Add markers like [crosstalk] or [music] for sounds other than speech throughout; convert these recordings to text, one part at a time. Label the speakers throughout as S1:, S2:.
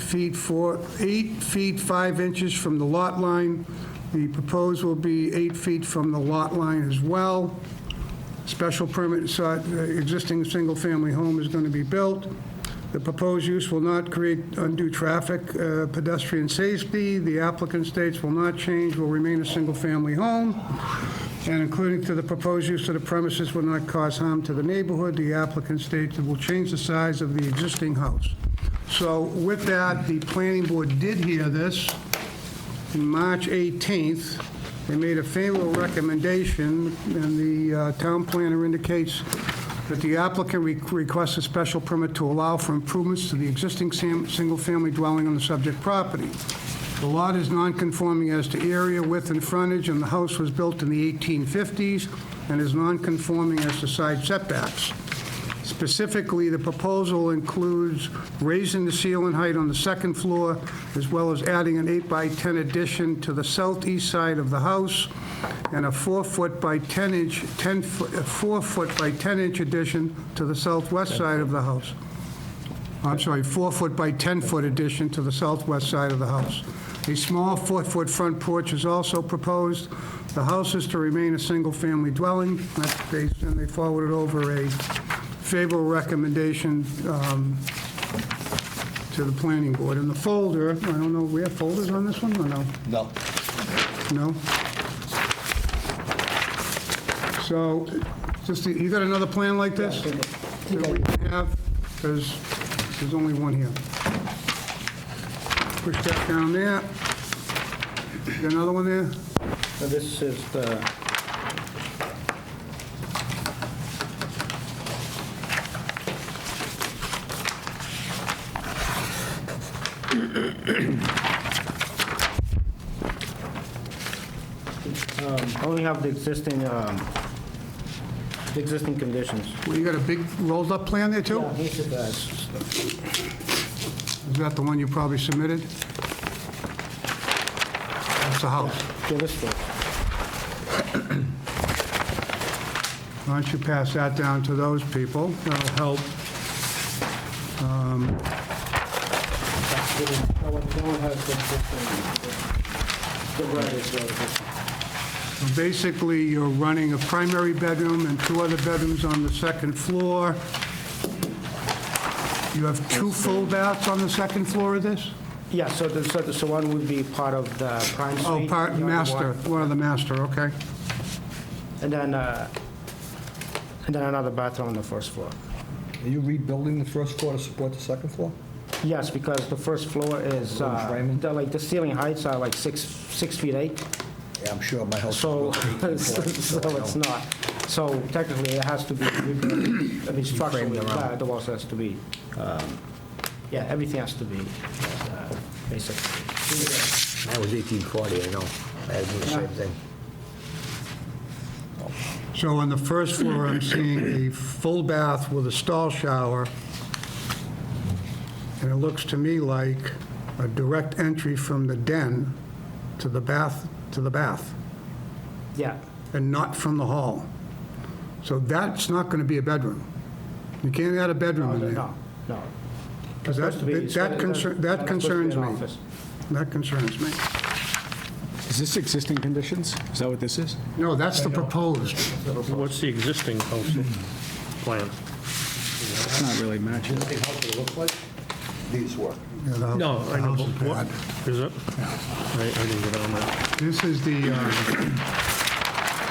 S1: feet four, eight feet five inches from the lot line. The proposed will be eight feet from the lot line as well. Special permit sought, uh, existing single-family home is going to be built. The proposed use will not create undue traffic, uh, pedestrian safety. The applicant states will not change, will remain a single-family home, and including to the proposed use of the premises will not cause harm to the neighborhood. The applicant states it will change the size of the existing house. So with that, the planning board did hear this on March 18th. They made a favorable recommendation, and the uh, town planner indicates that the applicant re- requests a special permit to allow for improvements to the existing sam- single-family dwelling on the subject property. The lot is non-conforming as to area, width, and frontage, and the house was built in the 1850s and is non-conforming as to side setbacks. Specifically, the proposal includes raising the ceiling height on the second floor, as well as adding an 8 by 10 addition to the southeast side of the house, and a 4-foot by 10-inch, 10, 4-foot by 10-inch addition to the southwest side of the house. I'm sorry, 4-foot by 10-foot addition to the southwest side of the house. A small 4-foot front porch is also proposed. The house is to remain a single-family dwelling, That's based- and they forwarded over a favorable recommendation um, to the planning board. In the folder, I don't know, we have folders on this one, or no?
S2: No.
S1: No? So, just, you got another plan like this? That we can have, because there's only one here. Push that down there. You got another one there?
S2: So this is the... Um, Only have the existing, um, the existing conditions.
S1: Well, you got a big rolled-up plan there, too?
S2: These are the-
S1: Is that the one you probably submitted? That's the house.
S2: Yeah, this one.
S1: Why don't you pass that down to those people? That'll help.
S2: No Oh, one no one has the existing, the right is the existing.
S1: Basically, you're running a primary bedroom and two other bedrooms on the second floor. You have two full baths on the second floor of this?
S2: Yeah, so the, so the, so one would be part of the prime suite.
S1: Oh, part,
S2: the other
S1: master,
S2: one-
S1: one of the master, okay.
S2: And then, uh, and then another bathroom on the first floor.
S3: Are you rebuilding the first floor to support the second floor?
S2: Yes, because the first floor is,
S3: Little
S2: uh,
S3: framing.
S2: the- like, the ceiling heights are like six, six feet eight,
S3: Yeah, I'm sure my house is
S2: so,
S3: built eighteen
S2: [laughs] so
S3: floors, so I
S2: it's
S3: know.
S2: not. So technically, it has to be, rebuilt. I mean, structurally, uh, the walls has to be, um, yeah, everything has to be, uh, basically.
S3: Mine was 1840, I know. I had to do the same thing.
S1: So on the first floor,
S2: [clears throat]
S1: I'm seeing a full bath with a stall shower, and it looks to me like a direct entry from the den to the bath, to the bath.
S2: Yeah,
S1: and not from the hall. So that's not going to be a bedroom. You can't add a bedroom in there.
S2: no, no.
S1: Because
S2: That's
S1: that,
S2: supposed to be-
S1: that concern- that
S2: that's supposed to be
S1: concerns
S2: an
S1: me.
S2: office.
S1: That concerns me.
S4: Is this existing conditions? Is that what this is?
S1: No, that's the proposed.
S5: What's the existing house plan?
S4: It's not really matching.
S3: Hey, how does it look like? These were.
S1: Yeah, the-
S5: No,
S1: the
S5: I know,
S1: house is
S5: but what-
S1: bad.
S5: is it? I I didn't get on that.
S1: This is the, uh,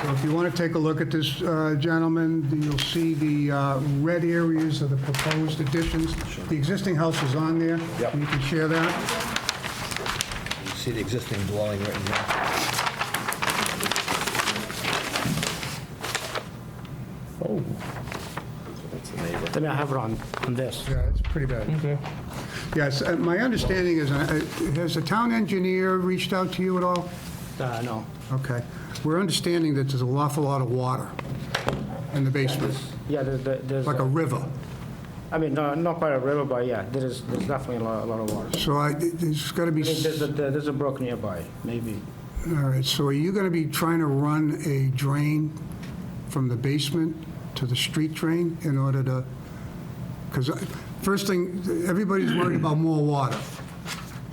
S1: so if you want to take a look at this, uh, gentlemen, you'll see the uh, red areas of the proposed additions. The existing house is on there.
S3: Yep.
S1: You can share that.
S3: You see the existing dwelling right there?
S2: I mean, I have it on, on this.
S1: Yeah, it's pretty bad. Yes, uh, my understanding is, uh, has the town engineer reached out to you at all?
S2: Uh, no.
S1: Okay. We're understanding that there's an awful lot of water in the basement,
S2: Yeah, there's, there- there's,
S1: like a
S2: uh,
S1: river.
S2: I mean, no, not quite a river, but yeah, there is, there's definitely a lot, a lot of water.
S1: So I, there's got to
S2: I
S1: be,
S2: mean,
S1: s-
S2: there's a, there- there's a brook nearby, maybe.
S1: all right, so are you going to be trying to run a drain from the basement to the street drain in order to, because first thing, everybody's worried about more water.